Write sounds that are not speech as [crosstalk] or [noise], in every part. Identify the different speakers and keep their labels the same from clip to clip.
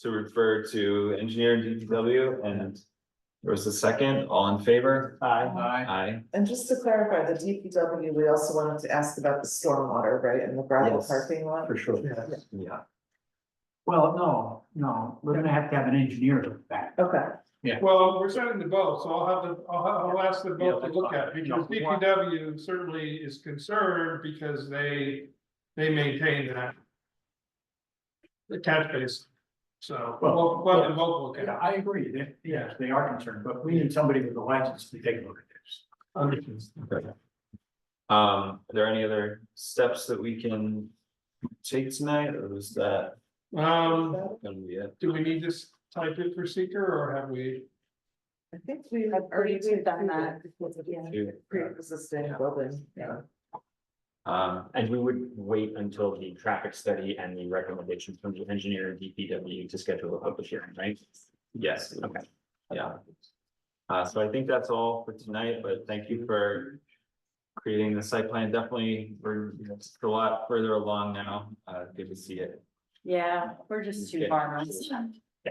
Speaker 1: to refer to engineer and DPW and. There was a second, all in favor?
Speaker 2: Aye.
Speaker 1: Aye.
Speaker 3: And just to clarify, the DPW, we also wanted to ask about the stormwater, right, and the gravel
Speaker 1: Yes.
Speaker 3: parking lot?
Speaker 1: sure.
Speaker 2: Yes.
Speaker 1: Yeah,
Speaker 2: Well, no, no, we're gonna have to have an engineer look back.
Speaker 3: Okay,
Speaker 4: Well, we're sending the boat, so I'll have the, I'll, ha- I'll ask the
Speaker 2: Yeah,
Speaker 4: boat to
Speaker 2: that's
Speaker 4: look at, it,
Speaker 2: fine.
Speaker 4: because
Speaker 2: Yeah.
Speaker 4: DPW certainly is concerned because they, they maintain that. The catch base, so,
Speaker 2: Well,
Speaker 4: we'll, we'll have the
Speaker 2: yeah.
Speaker 4: boat look at
Speaker 2: Yeah,
Speaker 4: it.
Speaker 2: I agree, that, yes, they are concerned, but we need somebody with a license to take a look at this.
Speaker 4: Understood.
Speaker 1: um, are there any other steps that we can take tonight, or was that
Speaker 4: Um,
Speaker 1: gonna be it?
Speaker 4: do we need this type in for seeker, or have we,
Speaker 3: I think we have
Speaker 5: I've
Speaker 3: already
Speaker 5: already
Speaker 3: taken
Speaker 5: done
Speaker 3: that.
Speaker 5: that. Yeah.
Speaker 3: Pre-existing building, yeah.
Speaker 1: Um,
Speaker 6: And we would wait until the traffic study and the recommendations from the engineer and DPW to schedule a public hearing, right?
Speaker 1: yes.
Speaker 6: Okay.
Speaker 1: Yeah. Uh, so I think that's all for tonight, but thank you for creating the site plan. Definitely, we're you know, it's a lot further along now. Uh, good to see it.
Speaker 5: Yeah, we're just two
Speaker 1: Okay.
Speaker 5: farmers. [laughs]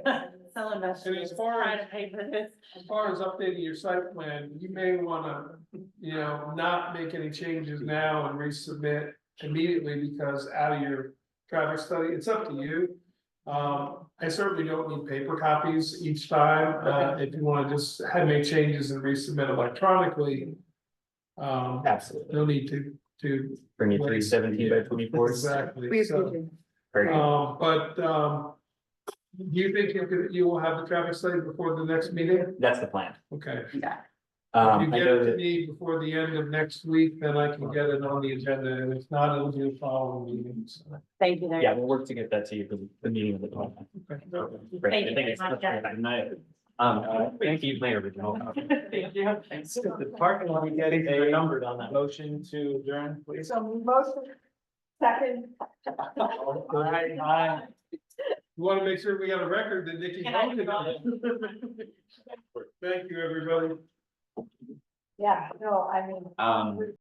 Speaker 5: Selling vegetables,
Speaker 4: far
Speaker 5: trying
Speaker 4: as-
Speaker 5: to pay for this.
Speaker 4: as far as updating your site plan, you may wanna, you know, not make any changes now and resubmit immediately because out of your traffic study, it's up to you. Um, I certainly don't need paper copies each time, uh, if you wanna just have make changes and resubmit electronically. Um,
Speaker 6: Absolutely.
Speaker 4: no need to, to.
Speaker 6: Bring it three seventeen by twenty
Speaker 4: [laughs]
Speaker 6: four.
Speaker 4: Exactly, so,
Speaker 6: Very good.
Speaker 4: um, but, um. Do you think you could, you will have the traffic study before the next meeting?
Speaker 6: That's the plan.
Speaker 4: Okay.
Speaker 5: Yeah,
Speaker 6: Um,
Speaker 4: You
Speaker 6: I
Speaker 4: get
Speaker 6: know
Speaker 4: it to
Speaker 6: that,
Speaker 4: me before the end of next week, then I can get it on the agenda, and if not, it'll be the following meetings.
Speaker 5: thank you. very
Speaker 6: yeah, we'll work to get that to you for the meeting of the plan. Great.
Speaker 5: Thank you.
Speaker 6: I think it's-
Speaker 5: Not yet.
Speaker 6: Good night. Um, uh, thank you, Mayor. Vigil.
Speaker 5: [laughs] Thank you. Thanks.
Speaker 1: The parking lot, we get a numbered on that motion to adjourn, please.
Speaker 5: So motion second.
Speaker 1: Aye, aye.
Speaker 4: You wanna make sure we have a record that Nikki.
Speaker 5: Can I
Speaker 4: voted on it. [laughs] Thank you, everybody.
Speaker 5: Yeah, no, I mean.
Speaker 1: Um.